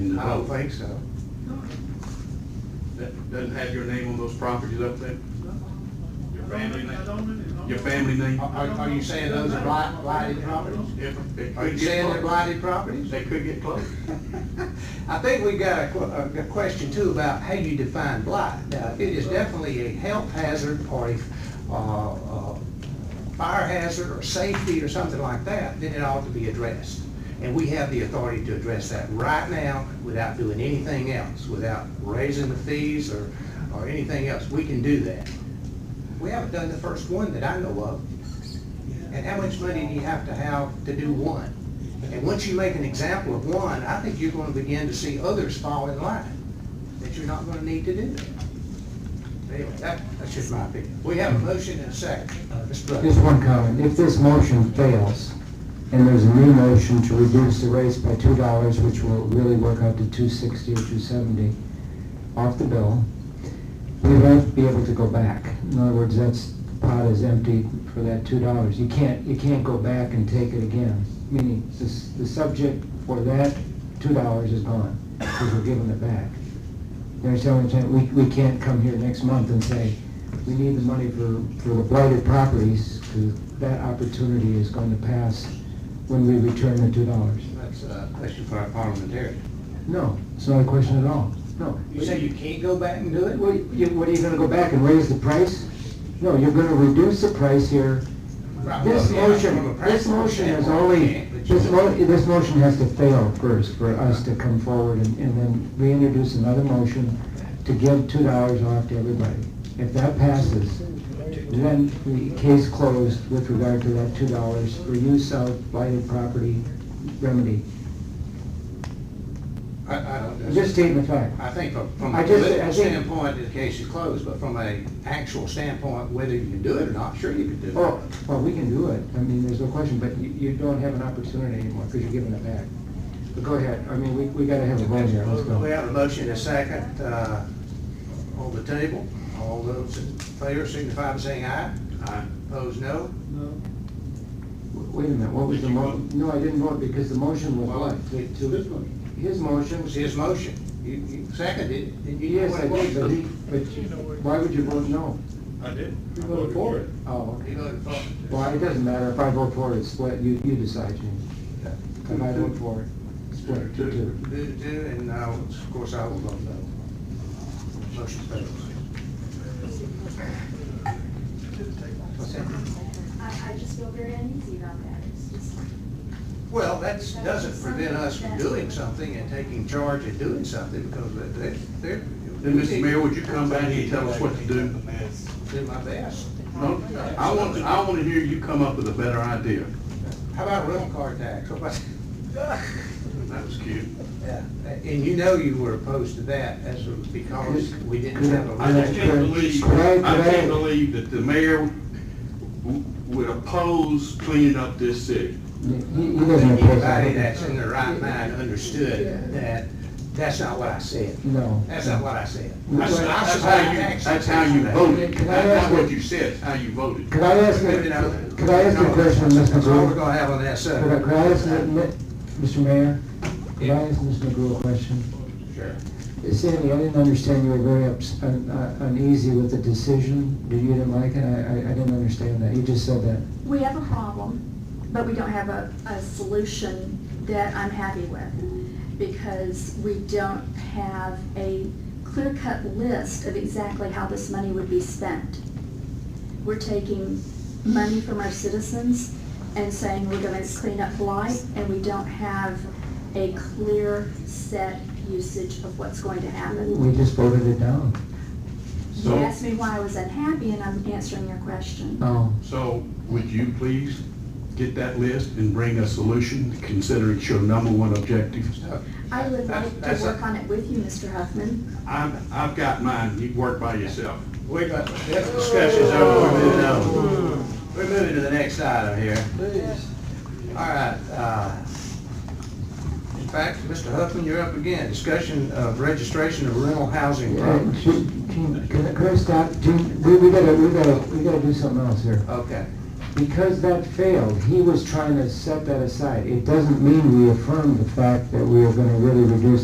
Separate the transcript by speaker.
Speaker 1: I don't think so.
Speaker 2: That doesn't have your name on those properties up there? Your family name?
Speaker 3: I don't-
Speaker 2: Your family name?
Speaker 1: Are, are- are you saying those are blight- blighted properties?
Speaker 2: If- it
Speaker 1: Are
Speaker 2: could
Speaker 1: you
Speaker 2: get
Speaker 1: saying they're
Speaker 2: close.
Speaker 1: blighted properties?
Speaker 2: They could get close.
Speaker 1: I think we got a, que- a- a question too about how you define blight. Now, it is definitely a health hazard or a, uh, uh, fire hazard or safety or something like that, then it ought to be addressed. And we have the authority to address that right now without doing anything else, without raising the fees or, or anything else. We can do that. We haven't done the first one that I know of. And how much money do you have to have to do one? And once you make an example of one, I think you're gonna begin to see others fall in line, that you're not gonna need to do that. Anyway, that, that's just my opinion. We have a motion and a second. Uh, Mr. Brooks?
Speaker 4: Just one comment, if this motion fails, and there's a new motion to reduce the rates by two dollars, which will really work out to two sixty or two seventy off the bill, we won't be able to go back. In other words, that's, the pot is empty for that two dollars. You can't, you can't go back and take it again, meaning the, s- the subject for that two dollars is gone, because we're giving it back. You understand what I'm saying? uh, We, we can't come here next month and say, we need the money for, for the blighted properties, because that opportunity is going to pass when we return the two dollars.
Speaker 1: That's a question for our parliamentarian.
Speaker 4: No, it's not a question at all. No.
Speaker 1: You say you can't go back and do it?
Speaker 4: What, you- what, are you gonna go back and raise the price? No, you're gonna reduce the price here. This motion, this motion is only, this mo, this motion has to fail first for us to come forward and, and then reintroduce another motion to give two dollars off to everybody. If that passes, then the case closed with regard to that two dollars for use of blighted property remedy.
Speaker 1: I, I don't,
Speaker 4: I'm just stating the fact.
Speaker 1: I think from, from a
Speaker 4: I just- I
Speaker 1: political
Speaker 4: think-
Speaker 1: standpoint, the case is closed, but from a actual standpoint, whether you can do it or not, sure you can do it.
Speaker 4: Oh, well, we can do it, I mean, there's no question, but you, you don't have an opportunity anymore, because you're giving it back. But go ahead, I mean, we, we gotta have a vote here, let's
Speaker 1: We
Speaker 4: go.
Speaker 1: have a motion and a second, uh, on the table. All those in favor signify by saying aye.
Speaker 2: Aye.
Speaker 1: Opposed, no.
Speaker 3: No.
Speaker 4: Wait a minute, what was the mo, no, I didn't vote, because the motion was
Speaker 1: Well,
Speaker 4: what? The- to- His
Speaker 1: It
Speaker 4: motion,
Speaker 1: was his motion. You, you seconded it. Did you?
Speaker 4: yes, I did, but he, but you- why would you vote no?
Speaker 3: I didn't.
Speaker 4: You voted for it. Oh,
Speaker 1: He
Speaker 4: okay.
Speaker 1: voted for it.
Speaker 4: well, it doesn't matter, if I vote for it, it's split, you, you decide, James. If I vote for it, split, two, two.
Speaker 1: Do, do, and now, of course, I will vote no. Motion fails. What's that?
Speaker 5: I, I just feel very uneasy about that. It's just,
Speaker 1: Well, that's, doesn't prevent us from doing something and taking charge and doing something, because they, they're.
Speaker 2: Then, Mr. Mayor, would you come back and tell us what to do?
Speaker 1: Do my best.
Speaker 2: No, I want, I want to hear you come up with a better idea.
Speaker 1: How about a rental car tax? How about-
Speaker 2: That was cute.
Speaker 1: Yeah, And you know you were opposed to that, as it- because we didn't have a.
Speaker 2: I just can't believe, I can't believe that the mayor w- would oppose cleaning up this city.
Speaker 4: He, he
Speaker 1: I
Speaker 4: doesn't
Speaker 1: think
Speaker 4: oppose
Speaker 1: Anybody that's in
Speaker 4: it.
Speaker 1: their right mind understood that, that's not what I said.
Speaker 4: No.
Speaker 1: That's not what I said. I
Speaker 2: That's
Speaker 1: said, I
Speaker 2: that's
Speaker 1: support
Speaker 2: how you,
Speaker 1: taxes.
Speaker 2: that's how you voted.
Speaker 4: Can I
Speaker 2: That's
Speaker 4: ask
Speaker 2: not
Speaker 4: you-
Speaker 2: what you said, it's how you voted.
Speaker 4: Could I ask,
Speaker 1: Maybe
Speaker 4: a-
Speaker 1: not.
Speaker 4: could I ask a
Speaker 1: No,
Speaker 4: question, Mr.
Speaker 1: That's all we're
Speaker 4: Brewer?
Speaker 1: gonna have on that subject.
Speaker 4: Could I, could I ask, a- mi- Mr. Mayor, could I ask Mr. Brewer a question?
Speaker 1: Sure.
Speaker 4: Sandy, I didn't understand you were very ups- un- uh, uneasy with the decision, Did you didn't like it, I, I I didn't understand that, you just said that.
Speaker 5: we have a problem, but we don't have a, a solution that I'm happy with. Because we don't have a clear-cut list of exactly how this money would be spent. We're taking money from our citizens and saying we're gonna clean up blight, and we don't have a clear set usage of what's going to happen.
Speaker 4: We just voted it down.
Speaker 5: You
Speaker 2: So-
Speaker 5: asked me why I was unhappy, and I'm answering your question.
Speaker 4: No,
Speaker 2: So would you please get that list and bring a solution, considering it's your number one objective?
Speaker 5: I would like
Speaker 1: That's-
Speaker 5: to
Speaker 1: that's-
Speaker 5: work on it with you, Mr. Huffman.
Speaker 2: I've, I've got mine, you work by yourself.
Speaker 1: We got, this discussion's over, we're moving on. We're moving to the next item here. All right, uh, in fact, Mr. Huffman, you're up again. Discussion of registration of rental housing
Speaker 4: Uh,
Speaker 1: property.
Speaker 4: Gene, Gene, can I- could I stop, Gene, we, we gotta, we gotta, we gotta do something else here.
Speaker 1: Okay,
Speaker 4: Because that failed, he was trying to set that aside, it doesn't mean we affirm the fact that we are gonna really reduce